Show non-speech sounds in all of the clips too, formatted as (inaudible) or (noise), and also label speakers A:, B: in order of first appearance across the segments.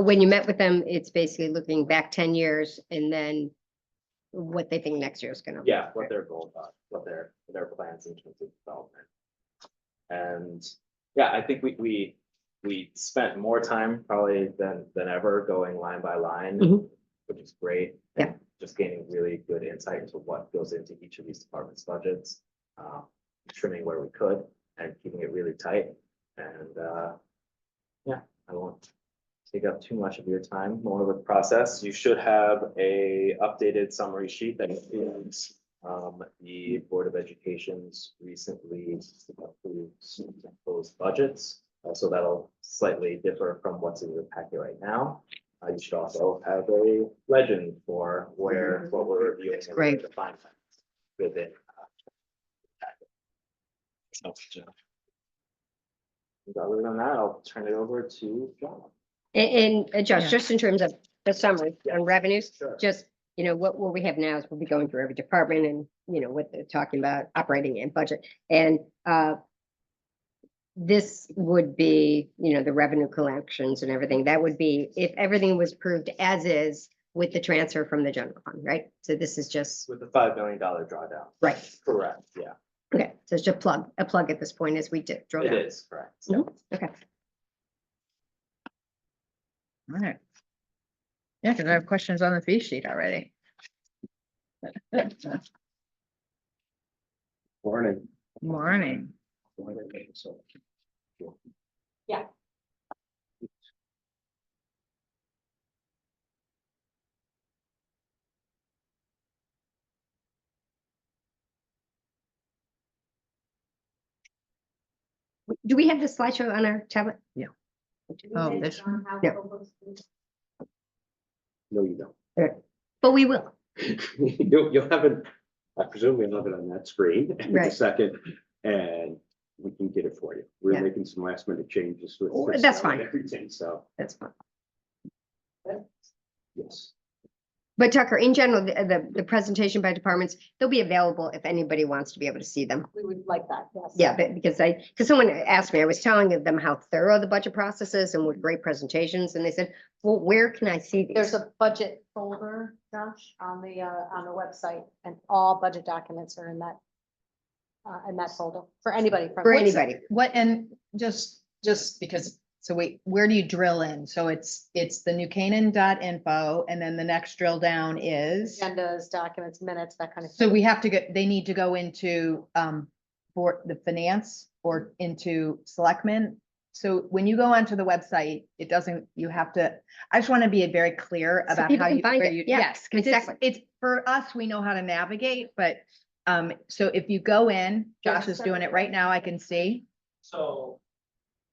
A: when you met with them, it's basically looking back ten years and then what they think next year is gonna. look
B: Yeah, what
A: like.
B: their goals are, what their, their plans in terms of development. And, yeah, I think we, we, we spent more time probably than, than ever going line by line.
A: Mhm.
B: Which is great. and Just gaining really good insight into what goes into each of these departments' budgets. uh, Trimming where we could and keeping it really tight and, uh. Yeah, I won't take up too much of your time, more with the process. You should have a updated summary sheet that includes um, the Board of Education's recently approved proposed budgets. Uh, so that'll slightly differ from what's in your packet right now. Uh, you should also have a legend for where, what we're reviewing.
A: That's great.
B: The fine points within. uh, packet. So, uh, Other than that, I'll turn it over to John.
A: A- And, uh, Josh,
C: Yeah.
A: just in terms of the summary on revenues,
B: Sure.
A: just, you know, what, what we have now is we'll be going through every department and, you know, what they're talking about, operating and budget, and, uh, this would be, you know, the revenue collections and everything, that would be if everything was proved as is with the transfer from the general fund, right? So this is just,
B: With the five million dollar drawdown.
A: right,
B: Correct, yeah,
A: okay, so it's just a plug, a plug at this point as we did, draw
B: it
A: down.
B: is correct.
A: Mhm. Okay,
C: All right. Yeah, because I have questions on the fee sheet already. (laughs)
B: Morning.
C: Morning.
A: Yeah. W- do we have the slideshow on our tablet?
C: Yeah.
A: Do we
C: Oh,
A: have-
C: this one.
A: Yeah.
B: No, you don't.
A: But we will,
B: (laughs) You'll, you'll have it, I presume you'll have it on that screen (laughs) in a
A: Right.
B: second, and we can get it for you. We're
A: Yeah.
B: making some last minute changes with.
A: Oh,
B: this
A: that's
B: now and
A: fine.
B: Everything, so,
A: that's fine.
B: yes.
A: But Tucker, in general, the, the, the presentation by departments, they'll be available if anybody wants to be able to see them.
D: We would like that, yes.
A: Yeah, but because I, because someone asked me, I was telling them how thorough the budget process is and what great presentations, and they said, well, where can I see
D: There's
A: these?
D: a budget folder, Josh, on the, uh, on the website, and all budget documents are in that, uh, in that folder, for anybody. from-
A: For
D: what's-
A: anybody,
C: What, and just, just because, so wait, where do you drill in? So it's, it's the new info, and then the next drill down is.
D: Agendas, documents, minutes, that kind of.
C: So
D: thing.
C: we have to get, they need to go into, um, for the finance or into selectmen. So when you go onto the website, it doesn't, you have to, I just want to be very clear
A: So
C: about
A: people
C: how
A: can
C: you.
A: find
C: where
A: it.
C: you-
A: Yeah,
C: Yes, 'cause it's,
A: exactly.
C: it's, for us, we know how to navigate, but, um, so if you go in, Josh is doing it right now, I can see.
E: So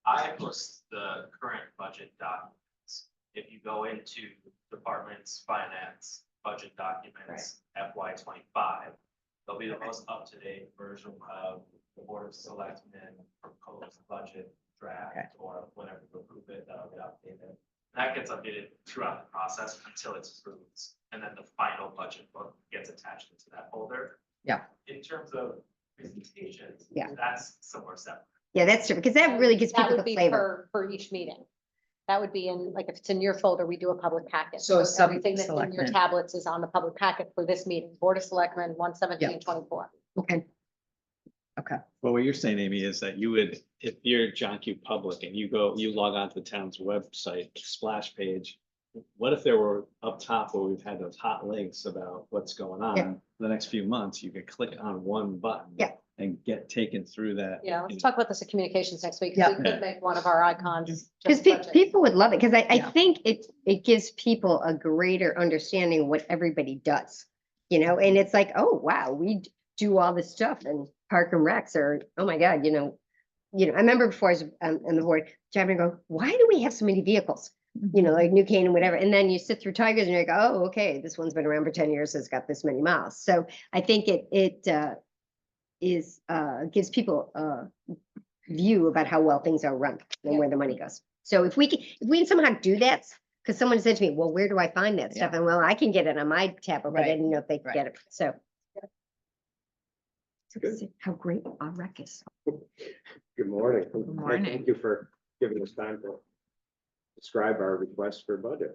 E: I post the current budget documents. If you go into departments, finance, budget documents, FY twenty-five, they'll be the most up-to-date version of the board of selectmen proposed budget
C: Okay.
E: draft or whenever you approve it, that'll get updated. And That gets updated throughout the process until it's approved, and then the final budget book gets attached into that folder.
C: Yeah.
E: In terms of presentations.
A: Yeah.
E: That's somewhere separate.
A: yeah, that's true, because that really gives
D: That
A: people
D: would
A: the
D: be
A: flavor.
D: For, for each meeting. That would be in, like, if it's in your folder, we do a public packet.
C: So a sub-
D: Everything that's in your
C: selectmen.
D: tablets is on the public packet for this meeting, Board of Selectmen, one
C: Yeah.
D: seventeen twenty-four.
A: Okay,
F: Well, what you're saying, Amy, is that you would, if you're John Q Public and you go, you log on to the town's website splash page. What if there were up top where we've had those hot links about what's going
A: Yeah.
F: on? The next few months, you could click on one button.
A: Yeah.
F: And get taken through that.
D: Yeah, let's talk about this at communications next week. 'cause
C: Yeah.
D: We could make one of our icons.
A: because
D: just budget.
A: people would love it, because I, I
C: Yeah.
A: think it, it gives people a greater understanding of what everybody does. You know, and it's like, oh, wow, we d- do all this stuff and park and recs are, oh my God, you know. You know, I remember before I was um, on the board, Jeremy go, why do we have so many vehicles? you know, like New Canaan, whatever. And then you sit through Tigers and you're like, oh, okay, this one's been around for ten years, it's got this many miles. So I think it, it, uh, is, uh, gives people a view about how well things are run and
D: Yeah.
A: where the money goes. So if we can, if we can somehow do that, because someone said to me, well, where do I find that stuff? And well, I can get it on my tablet, but I
C: Right.
A: didn't know if they could
C: Right.
A: get it, so. So
B: Good.
A: see How great our rec is.
B: Good morning.
C: morning.
B: Thank you for giving us time to describe our request for budget.